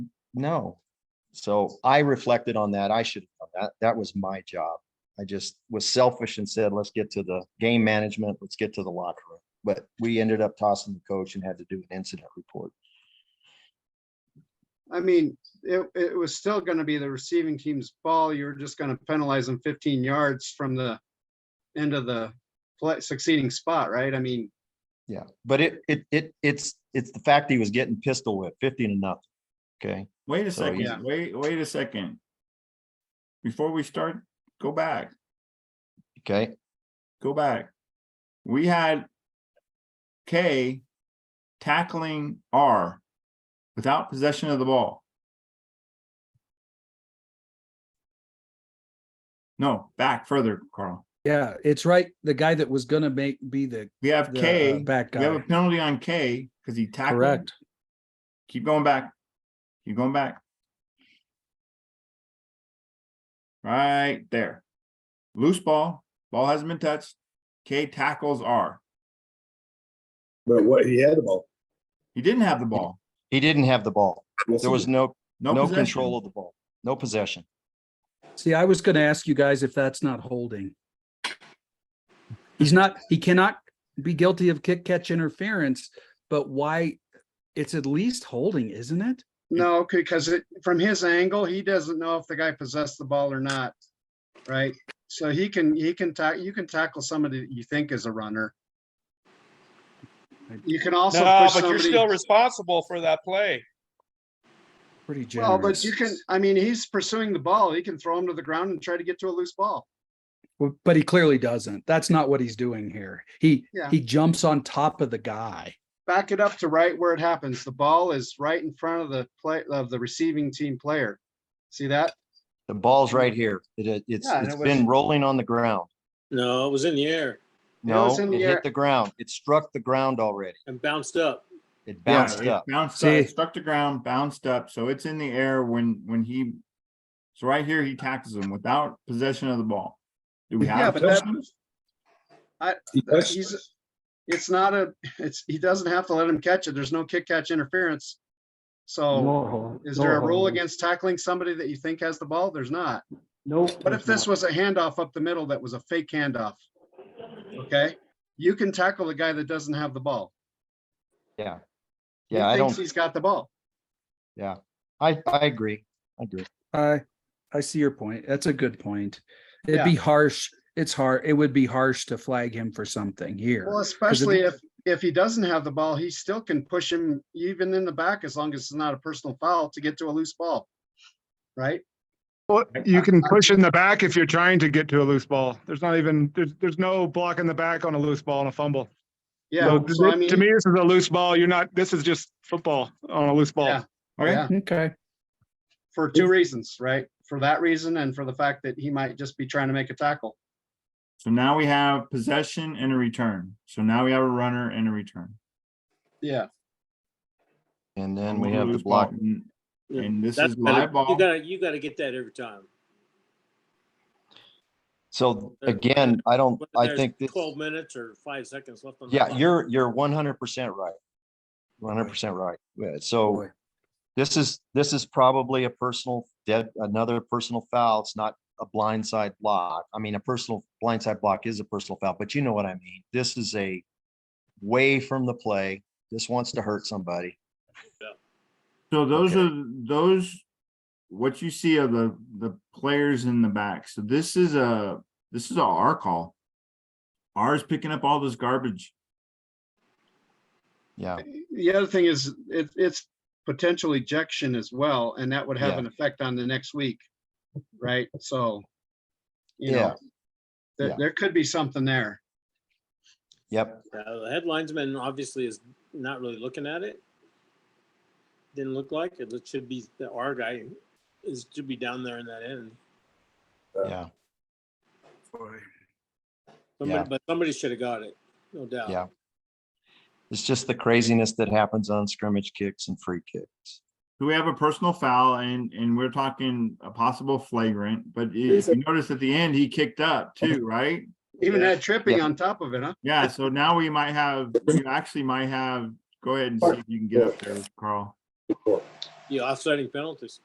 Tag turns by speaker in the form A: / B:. A: no. So I reflected on that. I should, have done that, that was my job. I just was selfish and said, let's get to the game management, let's get to the locker room. But we ended up tossing the coach and had to do an incident report.
B: I mean, it, it was still gonna be the receiving team's ball. You were just gonna penalize them fifteen yards from the end of the play, succeeding spot, right? I mean,
A: Yeah, but it, it, it, it's, it's the fact that he was getting pistol whipped fifteen to nothing. Okay,
C: Wait a
A: So, yeah.
C: second, wait, wait a second. Before we start, go back,
A: okay,
C: go back. We had K tackling R without possession of the ball. No, back further, Carl.
D: Yeah, it's right. The guy that was gonna make, be the,
C: We have
D: the uh,
C: K,
D: back
C: we have a
D: guy,
C: penalty on K because he tackled.
D: correct?
C: Keep going back. Keep going back. Right there. Loose ball, ball hasn't been touched. K tackles R.
E: But what, he had the ball.
C: He didn't have the ball.
A: he didn't have the ball.
E: Yes,
A: There
E: he
A: was no,
C: No,
A: no
C: possession.
A: control of the ball, no possession.
D: See, I was gonna ask you guys if that's not holding. He's not, he cannot be guilty of kick catch interference, but why? It's at least holding, isn't it?
B: no, because it, from his angle, he doesn't know if the guy possessed the ball or not. Right? So he can, he can tack, you can tackle somebody that you think is a runner. You can also
F: No,
B: push
F: but you're
B: somebody.
F: still responsible for that play.
D: Pretty
B: Well, but
D: generous.
B: you can, I mean, he's pursuing the ball. He can throw him to the ground and try to get to a loose ball.
D: Well, But he clearly doesn't. That's not what he's doing here. He,
B: Yeah.
D: he jumps on top of the guy.
B: back it up to right where it happens. The ball is right in front of the play of the receiving team player. See that?
A: The ball's right here. It, it's,
B: Yeah, and
A: it's
B: it
A: been
B: was-
A: rolling on the ground.
G: No, it was in the air
B: No,
A: No,
B: it's
A: it
B: in the air.
A: hit the ground. It struck the ground already.
G: and bounced up.
A: It
C: Yeah,
A: bounced
C: it
A: up.
C: Bounced
D: See?
C: up, struck the ground, bounced up. So it's in the air when, when he, so right here, he tackles him without possession of the ball. Do we
B: Yeah,
C: have?
B: but that-
C: possession?
E: He touched it.
B: He's, it's not a, it's, he doesn't have to let him catch it. There's no kick catch interference. So is there a rule against tackling somebody that you think has the ball? There's not.
D: No.
B: What if this was a handoff up the middle that was a fake handoff? Okay, you can tackle the guy that doesn't have the ball.
A: Yeah.
B: He
A: Yeah, I
B: thinks
A: don't,
B: He's got the ball.
A: I, I agree. I agree.
D: I, I see your point. That's a good point.
B: Yeah.
D: It'd be harsh. It's hard. It would be harsh to flag him for something
B: Well,
D: here.
B: especially if, if he doesn't have the ball, he still can push him even in the back as long as it's not a personal foul to get to a loose ball. Right?
H: Well, you can push in the back if you're trying to get to a loose ball. There's not even, there's, there's no block in the back on a loose ball and a fumble.
B: Yeah.
H: So
B: So I
H: To to
B: mean,
H: me, this is a loose ball. You're not, this is just football on a loose
B: Yeah.
H: ball.
C: Okay,
B: yeah,
D: Okay.
B: for two reasons, right? For that reason and for the fact that he might just be trying to make a tackle.
C: so now we have possession and a return. So now we have a runner and a return.
B: Yeah.
A: And then we
C: One
A: have the
C: loose ball.
A: block.
C: And-
G: Yeah,
C: And this
G: That's
C: is
G: better.
C: live ball.
G: You gotta, you gotta get that every time.
A: So
G: Uh,
A: again, I don't,
G: Whether
A: I
G: there's
A: think this,
G: Twelve minutes or five seconds left on. the
A: yeah,
G: clock.
A: you're, you're one hundred percent right. One hundred percent right. Yeah, So
D: Boy.
A: this is, this is probably a personal dead, another personal foul. It's not a blindside block. I mean, a personal blindside block is a personal foul, but you know what I mean? This is a way from the play. This wants to hurt somebody.
C: So those
A: Okay.
C: are, those, what you see are the, the players in the back. So this is a, this is a R call. R is picking up all this garbage.
A: Yeah.
B: The other thing is it, it's potential ejection as well, and that would have
A: Yeah.
B: an effect on the next week. Right? So, you
A: Yeah.
B: know,
A: Yeah.
B: there, there could be something there.
A: Yep.
G: Uh, The headlinesman obviously is not really looking at it. Didn't look like it. It should be, the R guy is, should be down there in that end.
A: Yeah. Yeah.
G: Somebody, but somebody should have got it, no doubt.
A: Yeah. It's just the craziness that happens on scrimmage kicks and free kicks.
C: So we have a personal foul and, and we're talking a possible flagrant, but if you notice at the end, he kicked up too, right?
B: Even
G: Yeah.
B: had tripping
A: Yeah.
B: on top of it, huh?
C: Yeah, so now we might have, you actually might have, go ahead and see if you can get up there, Carl.
G: the offsetting penalties.